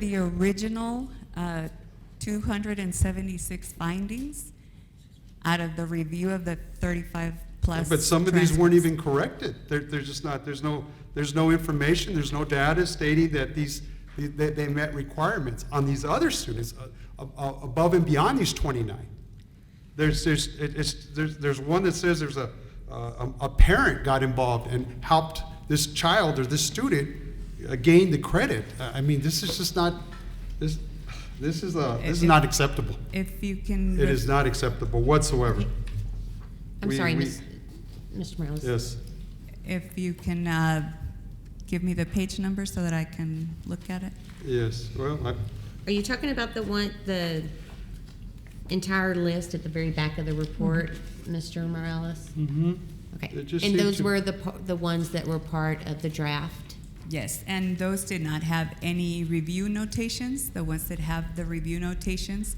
the original uh, 276 findings out of the review of the 35-plus. But some of these weren't even corrected. They're, they're just not, there's no, there's no information, there's no data stating that these, that they met requirements on these other students uh, a- a- above and beyond these 29. There's, there's, it- it's, there's, there's one that says there's a, uh, a a parent got involved and helped this child or this student uh, gain the credit. Uh, I I mean, this is just not, this, this is a, this is not acceptable. If you can. It is not acceptable whatsoever. I'm We- sorry, we- Ms. Mr. Morales. Yes. If you can uh, give me the page number so that I can look at it. Yes, well, I, Are you talking about the one, the entire list at the very back of the report, Mr. Morales? Okay. Mm-hmm. It just And seemed those to- were the, pa- the ones that were part of the draft? Yes, and those did not have any review notations. The ones that have the review notations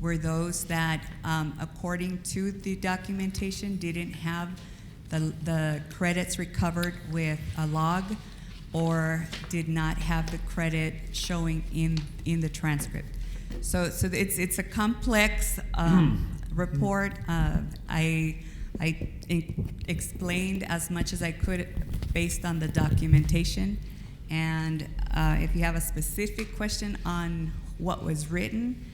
were those that, um, according to the documentation, didn't have the, the credits recovered with a log or did not have the credit showing in, in the transcript. So, so it's, it's a complex um, report. Uh, I, I in- explained as much as I could based on the documentation. And uh, if you have a specific question on what was written,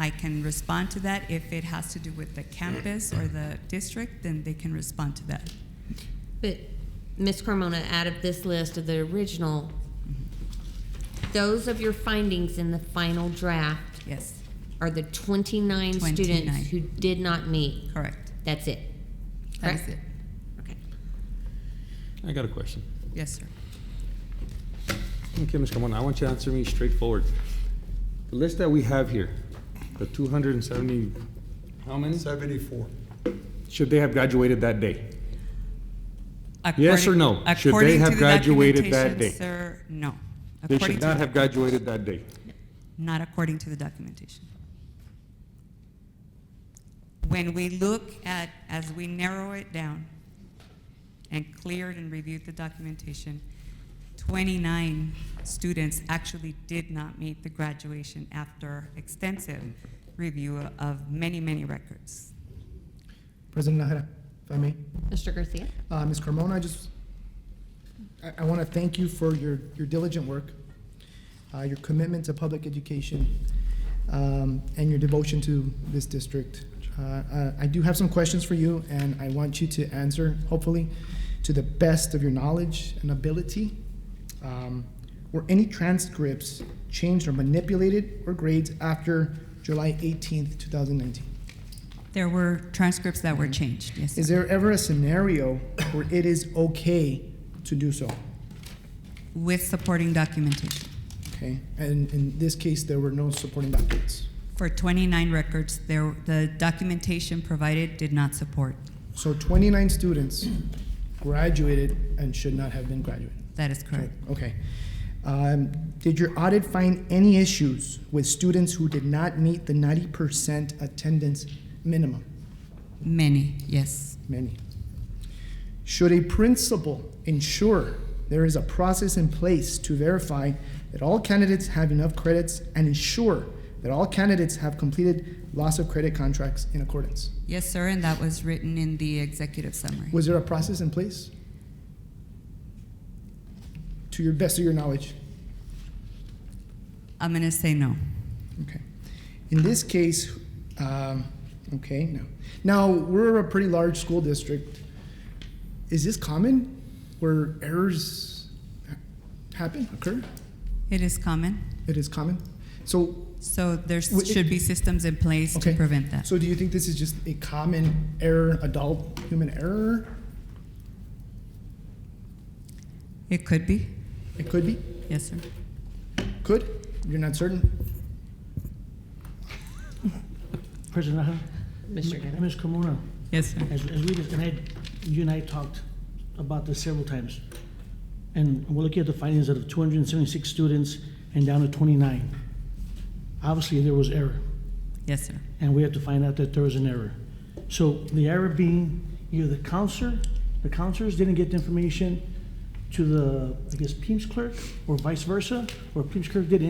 I can respond to that. If it has to do with the campus or the district, then they can respond to that. But, Ms. Carmona, out of this list of the original, those of your findings in the final draft Yes, are the 29 29. students who did not meet. correct. That's it? That is correct? it. Okay. I got a question. Yes, sir. Okay, Ms. Carmona, I want you to answer me straightforward. The list that we have here, the two hundred and seventy, how many? 74. Should they have graduated that day? According- or no? Should they according to have the graduated that documentation, day? Sir, no. They According should to not the- have graduated that day. Not according to the documentation. When we look at, as we narrow it down and cleared and reviewed the documentation, 29 students actually did not meet the graduation after extensive review of many, many records. President Nahara, if I may. Mr. Garcia? Uh, Ms. Carmona, I just, I, I want to thank you for your, your diligent work, uh, your commitment to public education, um, and your devotion to this district. Uh, uh, I do have some questions for you, and I want you to answer, hopefully, to the best of your knowledge and ability. Um, Were any transcripts changed or manipulated or grades after July 18th, 2019? There were transcripts that were changed, yes. Is sir. there ever a scenario where it is okay to do so? With supporting documentation. Okay, and in this case, there were no supporting documents. For 29 records, there, the documentation provided did not support. So 29 students graduated and should not have been graduated. That is correct. Okay. Um, Did your audit find any issues with students who did not meet the 90% attendance minimum? Many, yes. Many. Should a principal ensure there is a process in place to verify that all candidates have enough credits and ensure that all candidates have completed loss of credit contracts in accordance? Yes, sir, and that was written in the executive summary. Was there a process in place? To your best of your knowledge? I'm going to say no. Okay. In this case, um, okay, no. Now, we're a pretty large school district. Is this common where errors ha- happen, occur? It is common, It is common? So, so there Well, it- should be systems in place to Okay. prevent that. so do you think this is just a common error, adult human error? It could be, It could be, yes, sir. could, you're not certain? President Nahara? Mr. Guerra? Ms. Carmona, Yes, sir. as, as we, just- and I, you and I talked about this several times. And we're looking at the findings out of two hundred and seventy-six students and down to twenty-nine. Obviously, there was error, Yes, sir. and we had to find out that there was an error. So the error being either the counselor, the counselors didn't get the information to the, I guess, PIMS clerk, or vice versa, or PIMS clerk did